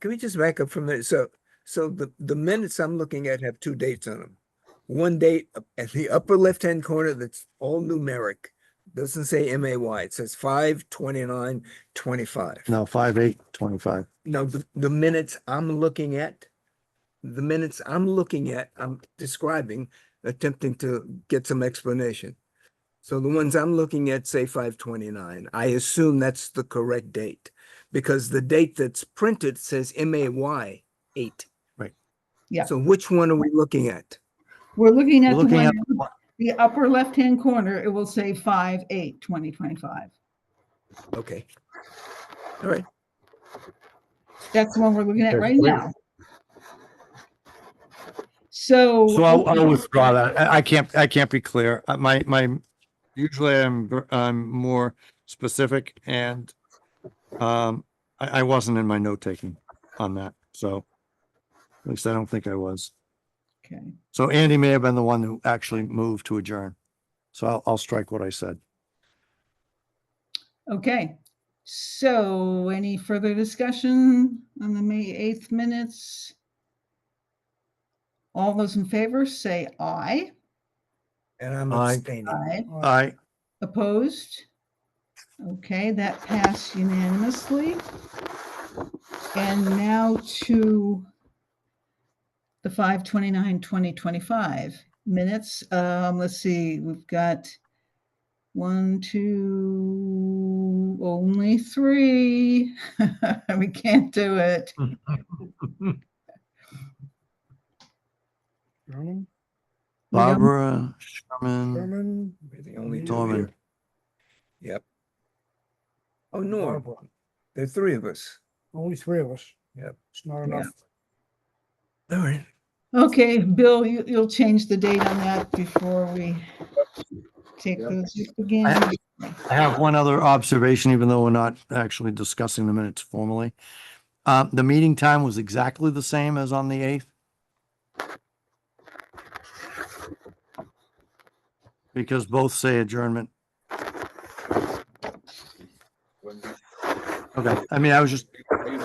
Can we just back up for a minute? So, so the, the minutes I'm looking at have two dates on them. One date up at the upper left-hand corner that's all numeric, doesn't say MAY, it says five twenty-nine twenty-five. No, five, eight, twenty-five. No, the, the minutes I'm looking at, the minutes I'm looking at, I'm describing, attempting to get some explanation. So the ones I'm looking at say five twenty-nine. I assume that's the correct date because the date that's printed says M A Y eight. Right. Yeah. So which one are we looking at? We're looking at We're the looking at, one, the upper left-hand corner, it will say five, eight, twenty twenty-five. Okay. All right, That's the one we're looking at There's right three. now. So. so I'll, I'll withdraw that. I, I can't, I can't be clear. Uh, My, my, usually I'm, gr- I'm more specific and um, I, I wasn't in my note taking on that, so at least I don't think I was. Okay. So Andy may have been the one who actually moved to adjourn. So I'll, I'll strike what I said. Okay, so any further discussion on the May 8th minutes? All those in favor say aye. and I'm Aye. abstaining. Aye. I, Opposed? Okay, that passed unanimously. And now to the 5/29/2025 minutes. Um, Let's see, we've got one, two, only three. We can't do it. Norman, We don't- Barbara Sherman Norman, We're the only two Norman. here. Yep. Oh, Norm, there are three of us. Only three of us. Yep. It's not enough. All right. Okay, Bill, you- you'll change the date on that before we take Yep. those again. I have one other observation, even though we're not actually discussing the minutes formally. Uh, the meeting time was exactly the same as on the eighth. Because both say adjournment. Okay, I mean, I was just,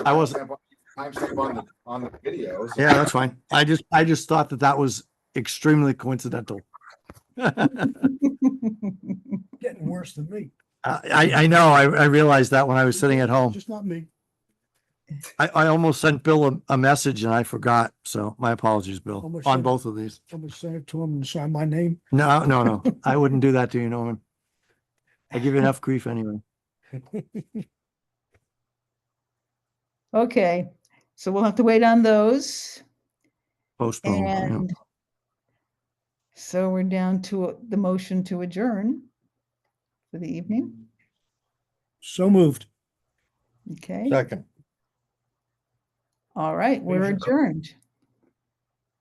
I wasn't- Timestamp on the, on the videos. yeah, that's fine. I just, I just thought that that was extremely coincidental. I, Getting worse than me. I, I know, I, I realized that when I was sitting at Oh. home. Just not me. I, I almost sent Bill a, a message and I forgot, so my apologies, How Bill, much on time? both of these. I'm gonna send it to him and sign my name. No, no, no, I wouldn't do that to you, Norman. I give you enough grief anyway. Okay, so we'll have to wait on those. Postpone. yeah. And so we're down to the motion to adjourn for the evening. So moved. Okay, all right, we're Major co- adjourned.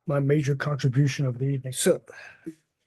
My major contribution of the evening. So,